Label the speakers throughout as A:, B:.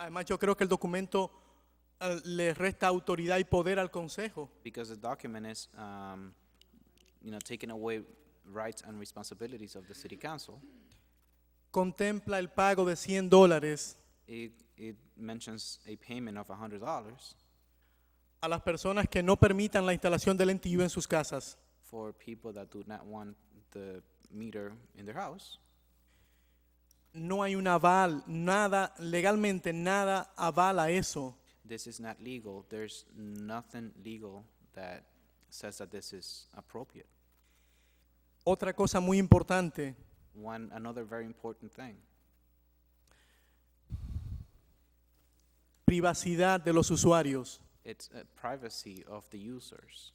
A: Además, yo creo que el documento eh, le resta autoridad y poder al Consejo.
B: because the document is, um, you know, taking away rights and responsibilities of the city council.
A: Contempla el pago de 100 dólares
B: It, it mentions a payment of hundred dollars
A: a las personas que no permitan la instalación del NTU en sus casas.
B: for people that do not want the meter in their house.
A: No hay un aval, nada, legalmente nada avala eso.
B: This is not legal. There's nothing legal that says that this is appropriate.
A: Otra cosa muy importante,
B: One, another very important thing,
A: privacidad de los usuarios.
B: it's uh, privacy of the users.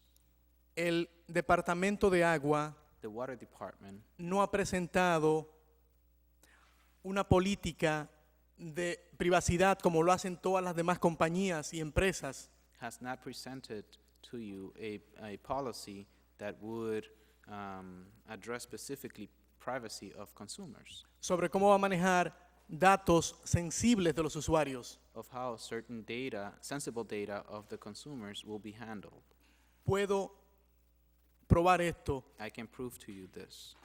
A: El Departamento de Agua
B: The water department
A: no ha presentado una política de privacidad como lo hacen todas las demás compañías y empresas.
B: has not presented to you a, a policy that would um, address specifically privacy of consumers,
A: sobre cómo va a manejar datos sensibles de los usuarios.
B: of how certain data, sensible data of the consumers will be handled.
A: Puedo probar esto.
B: I can prove to you this.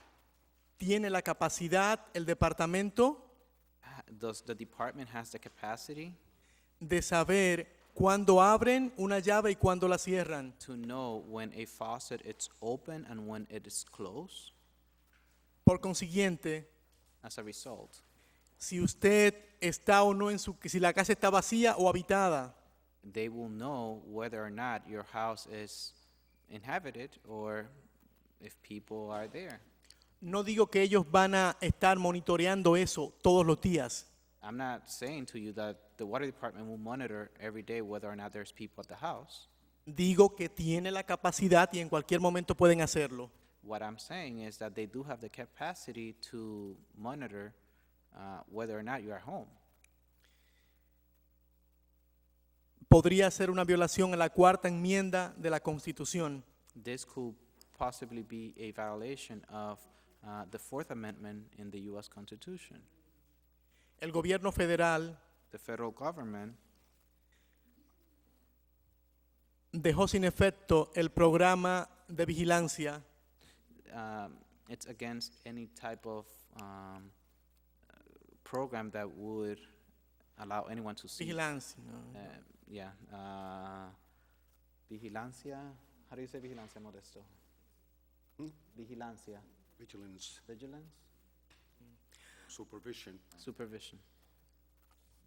A: ¿Tiene la capacidad el departamento
B: Ha- Does the department has the capacity
A: de saber cuándo abren una llave y cuándo la cierran?
B: to know when a faucet is open and when it is closed?
A: Por consiguiente,
B: As a result,
A: si usted está o no en su si la casa está vacía o habitada.
B: they will know whether or not your house is inhabited or if people are there.
A: No digo que ellos van a estar monitoreando eso todos los días,
B: I'm not saying to you that the water department will monitor every day whether or not there's people at the house.
A: digo que tiene la capacidad y en cualquier momento pueden hacerlo.
B: What I'm saying is that they do have the capacity to monitor uh, whether or not you're at home.
A: podría ser una violación a la cuarta enmienda de la Constitución.
B: This could possibly be a violation of uh, the Fourth Amendment in the U.S. Constitution.
A: El gobierno federal
B: The federal government
A: dejó sin efecto el programa de vigilancia
B: um, it's against any type of um, uh, program that would allow anyone to see.
A: vigilancia ¿no?
B: Uh, yeah. Uh, vigilancia. How do you say vigilancia, Modesto? Vigilancia.
C: Vigilance,
B: Vigilance?
C: supervision.
B: Supervision.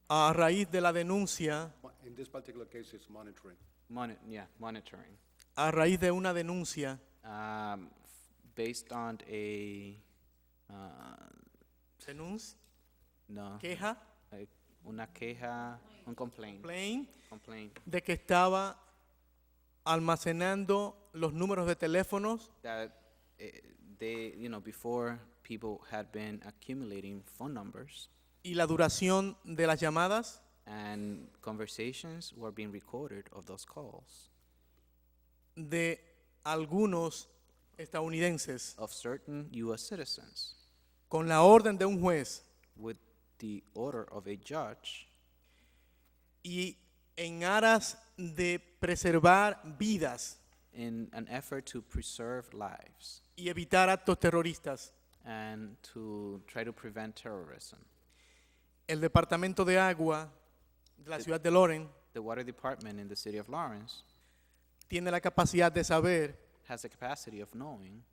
A: a raíz de la denuncia,
C: Mo- In this particular case, it's monitoring.
B: Moni- yeah, monitoring.
A: a raíz de una denuncia,
B: Um, f- based on a. Uh,
A: denuncia,
B: no.
A: queja,
B: like una queja. Un complaint.
A: plain,
B: Complaint.
A: de que estaba almacenando los números de teléfonos
B: That eh, they, you know, before people had been accumulating phone numbers
A: y la duración de las llamadas
B: and conversations were being recorded of those calls.
A: de algunos estadounidenses
B: of certain U.S. citizens
A: con la orden de un juez
B: with the order of a judge
A: y en aras de preservar vidas
B: in an effort to preserve lives
A: y evitar actos terroristas.
B: and to try to prevent terrorism.
A: El Departamento de Agua de la ciudad de Loren
B: The water department in the city of Lawrence
A: tiene la capacidad de saber
B: has the capacity of knowing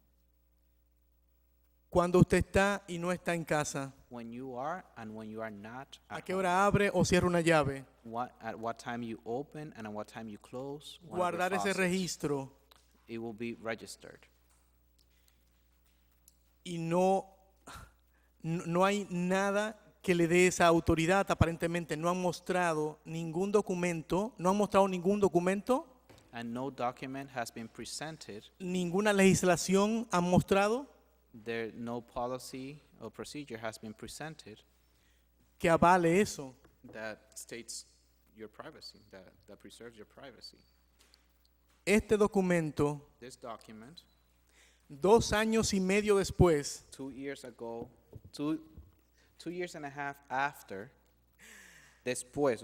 A: cuándo usted está y no está en casa,
B: when you are and when you are not at
A: a qué
B: home.
A: hora abre o cierra una llave,
B: What, at what time you open and at what time you close. one of your
A: guardar ese
B: faucets.
A: registro
B: It will be registered.
A: y no, no no hay nada que le dé esa autoridad, aparentemente no han mostrado ningún documento, no han mostrado ningún documento,
B: And no document has been presented.
A: ninguna legislación han mostrado
B: There, no policy or procedure has been presented
A: que avale eso.
B: that states your privacy, that, that preserves your privacy.
A: Este documento,
B: This document,
A: dos años y medio después,
B: two years ago, two, two years and a half after, después,